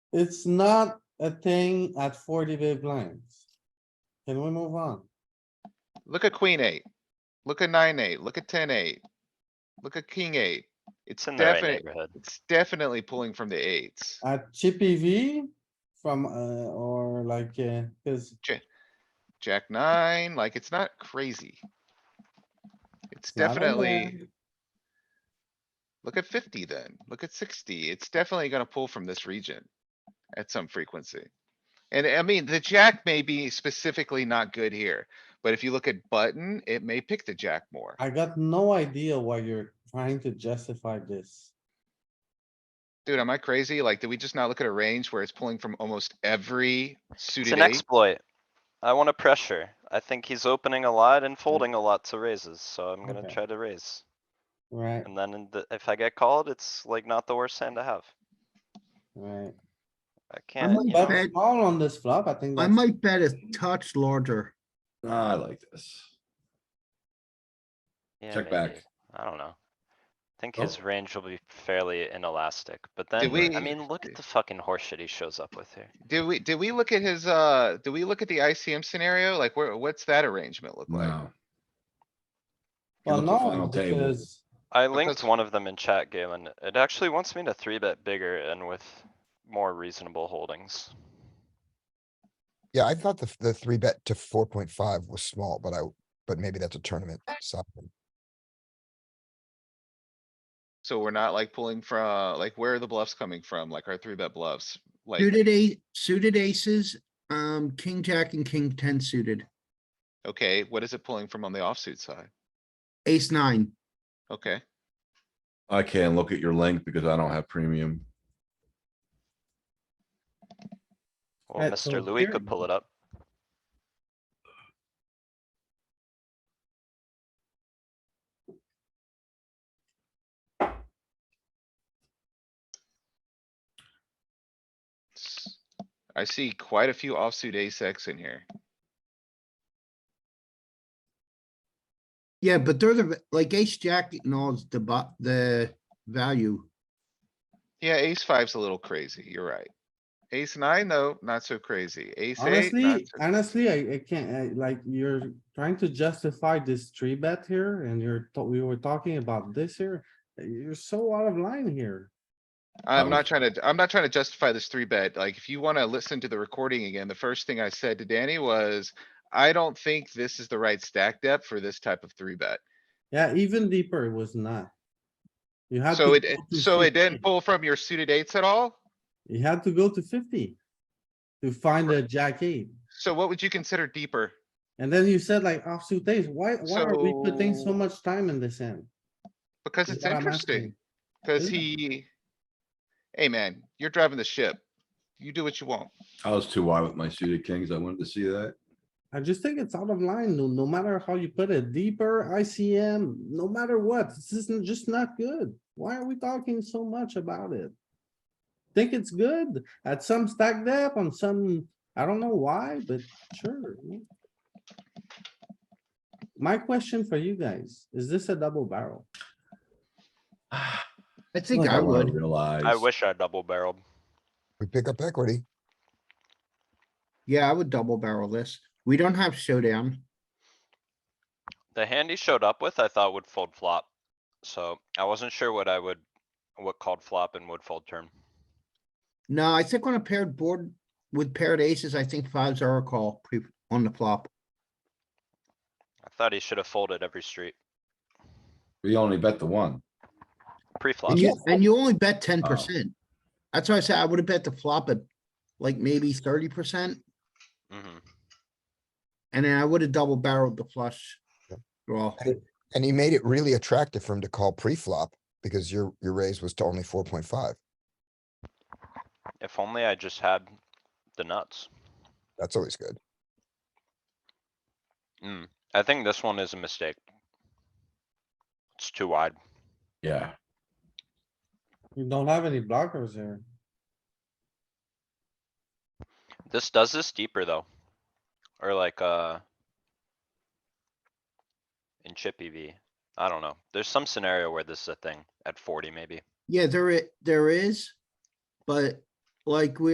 It's not a thing at forty big blinds. Can we move on? Look at queen eight. Look at nine eight, look at ten eight. Look at king eight. It's It's in the right definitely, neighborhood. it's definitely pulling from the eights. At chippy V from, uh, or like, uh, cause Jack nine, like it's not crazy. It's It's not a definitely. bad. Look at fifty then, look at sixty. It's definitely gonna pull from this region at some frequency. And I mean, the jack may be specifically not good here, but if you look at button, it may pick the jack more. I got no idea why you're trying to justify this. Dude, am I crazy? Like, did we just not look at a range where it's pulling from almost every It's suited an eight? exploit. I wanna pressure. I think he's opening a lot and folding a lot to raises, so I'm gonna Okay. try to raise. Right, And then in the- if I get called, it's like not the worst hand to have. right. I I can't, might you know, bet small on this flop. I think I that's, might bet a touch larger. I like this. yeah, Check maybe. back. I don't know. I think Oh. his range will be fairly inelastic, but then, we- I mean, look at the fucking horseshit he shows up with here. Did we, did we look at his, uh, did we look at the ICM scenario? Like, where, what's that arrangement look like? No. You well, look at the no, final table. because I linked Because- one of them in chat, Galen. It actually wants me to three bet bigger and with more reasonable holdings. Yeah, I thought the, f- the three bet to four point five was small, but I, but maybe that's a tournament side. So we're not like pulling from, like, where are the bluffs coming from? Like our three bet bluffs? Like, Suited ace, suited aces, um, king, jack and king ten suited, okay, what is it pulling from on the offsuit side? ace nine. Okay, I can't look at your link because I don't have premium. Well, Right, so Mr. Louis here- could pull it up. S- I see quite a few offsuit ace X in here. Yeah, but they're the, like ace, jack and all is the bu- the value. Yeah, ace five's a little crazy, you're right. Ace nine, though, not so crazy. Ace eight, not honestly, so honestly, I, I can't, I- like, you're trying to justify this three bet here and you're, ta- we were talking about this here. You're so out of line here. I'm Oh. not trying to, I'm not trying to justify this three bet. Like, if you wanna listen to the recording again, the first thing I said to Danny was, I don't think this is the right stack depth for this type of three bet. Yeah, even deeper it was not. You had. So to it, it- go to so it 50. didn't pull from your suited eights at all? You had to go to fifty to find a jack eight. So what would you consider deeper? And then you said like offsuit days. Why, why are we putting so So- much time in this end? Because Is it's what I'm interesting, asking. cuz Isn't it? he. Hey, man, you're driving the ship. You do what you want. I was too wide with my suited kings. I wanted to see that. I just think it's out of line, no, no matter how you put it, deeper ICM, no matter what, this isn't just not good. Why are we talking so much about it? Think it's good at some stack depth on some, I don't know why, but sure. yeah. My question for you guys, is this a double barrel? I think Well, I that wanna would. Realize. I wish I double barreled. We pick up equity. Yeah, I would double barrel this. We don't have showdown. The hand he showed up with, I thought would fold flop. So I wasn't sure what I would, what called flop and would fold turn. No, I think on a paired board with paired aces, I think fives are a call pre, on the flop. I thought he should have folded every street, We only bet the one. pre-flop. And you, and you only bet ten percent. That's why I said I would have bet the flop at like maybe thirty percent, Mhm. and then I would have double barreled the flush draw. And he made it really attractive for him to call pre-flop because your, your raise was to only four point five. If only I just had the nuts. That's always good. Mm. I think this one is a mistake. It's too wide. Yeah. You don't have any blockers here. This does this deeper though. Or like, uh. In chip EV. I don't know. There's some scenario where this is a thing at forty maybe. Yeah, there it, there is, but like we